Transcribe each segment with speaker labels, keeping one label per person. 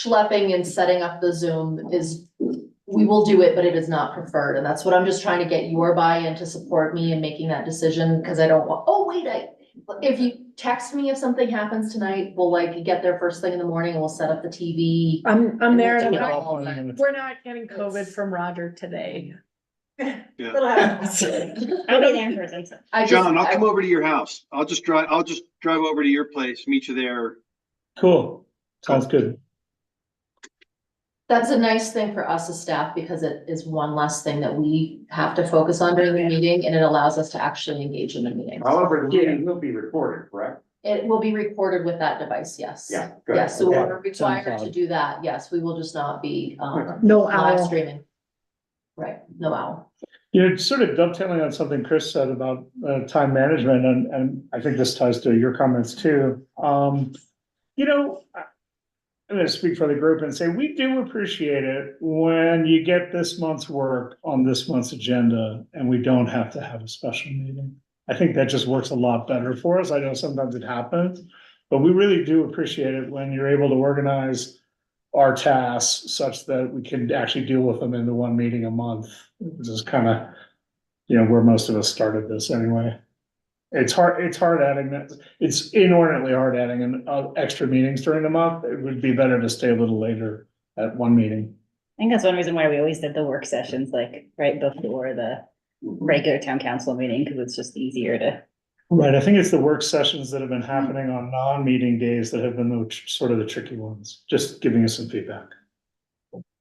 Speaker 1: schlepping and setting up the Zoom is, we will do it, but it is not preferred, and that's what I'm just trying to get your buy-in to support me in making that decision, because I don't want, oh, wait, I, if you text me if something happens tonight, we'll like get there first thing in the morning, and we'll set up the TV.
Speaker 2: I'm, I'm there. and I'm
Speaker 1: Yeah.
Speaker 2: not-
Speaker 1: all that.
Speaker 2: We're not getting COVID from Roger today.
Speaker 3: It'll happen.
Speaker 4: I'll be there in person, so.
Speaker 1: I just-
Speaker 5: John, I'll
Speaker 1: I-
Speaker 5: come over to your house. I'll just drive, I'll just drive over to your place, meet you there.
Speaker 6: Cool, sounds good.
Speaker 1: That's a nice thing for us as staff because it is one less thing that we have to focus on during the meeting and it allows us to actually engage in the meeting.
Speaker 7: However, the meeting will be recorded, correct?
Speaker 1: It will be recorded with that device, yes.
Speaker 7: Yeah. good.
Speaker 1: Yes, so
Speaker 7: Okay.
Speaker 1: we're required to
Speaker 6: Soundcloud.
Speaker 1: do that. Yes, we will just not be um
Speaker 2: No
Speaker 1: live
Speaker 2: owl.
Speaker 1: streaming. Right, no hour.
Speaker 6: You're sort of dovetailing on something Chris said about uh time management and and I think this ties to your comments too. Um, you know, I- I'm gonna speak for the group and say we do appreciate it when you get this month's work on this month's agenda and we don't have to have a special meeting. I think that just works a lot better for us. I know sometimes it happens, but we really do appreciate it when you're able to organize our tasks such that we can actually deal with them into one meeting a month. This is kind of, you know, where most of us started this anyway. It's hard, it's hard adding that, it's inordinately hard adding an uh, extra meetings during the month. It would be better to stay a little later at one meeting.
Speaker 4: I think that's one reason why we always did the work sessions like right before the regular town council meeting, because it's just easier to.
Speaker 6: Right, I think it's the work sessions that have been happening on non-meeting days that have been the tr- sort of the tricky ones, just giving us some feedback.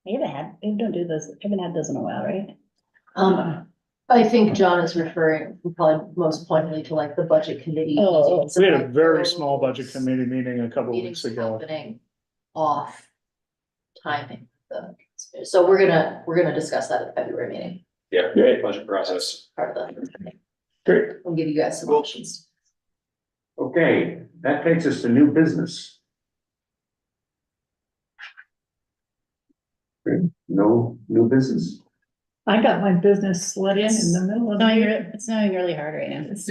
Speaker 4: We haven't had, we don't do those, haven't had those in a while, right?
Speaker 1: Um, I think John is referring probably most pointedly to like the budget committee.
Speaker 4: Oh.
Speaker 1: meetings and,
Speaker 6: We had a
Speaker 1: like,
Speaker 6: very
Speaker 1: those
Speaker 6: small budget committee meeting a couple of
Speaker 1: Meetings
Speaker 6: weeks ago.
Speaker 1: happening off timing. the- So we're gonna, we're gonna discuss that at the February meeting,
Speaker 3: Yeah,
Speaker 6: Great.
Speaker 3: budget process.
Speaker 1: part of the,
Speaker 6: Great.
Speaker 1: we'll give you guys some
Speaker 5: Well-
Speaker 1: options.
Speaker 7: Okay, that takes us to new business. Good. No new business.
Speaker 2: I got my business slid in in the middle of.
Speaker 4: It's snowing, re- it's snowing really hard right now. It's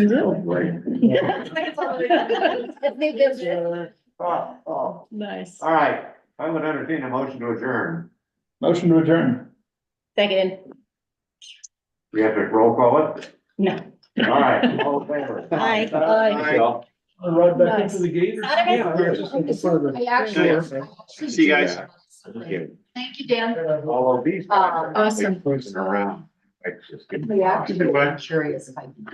Speaker 7: Right. Oh, oh.
Speaker 2: Nice.
Speaker 7: All right, I would entertain a motion to adjourn.
Speaker 6: Motion to adjourn.
Speaker 4: Second,
Speaker 7: We have to roll call it.
Speaker 4: no.
Speaker 7: All right, all in favor?
Speaker 4: Aye.
Speaker 7: Aye.
Speaker 6: Right
Speaker 2: back into
Speaker 6: the gate.
Speaker 4: Not a bad-
Speaker 1: I actually. I
Speaker 5: Sure.
Speaker 1: actually
Speaker 5: See you
Speaker 1: do
Speaker 5: guys.
Speaker 1: have something. Thank you, Dan.
Speaker 7: All of these.
Speaker 1: Um,
Speaker 2: Awesome.
Speaker 7: Around. I just-
Speaker 1: Reactivate,
Speaker 5: Goodbye.
Speaker 1: I'm curious if I can.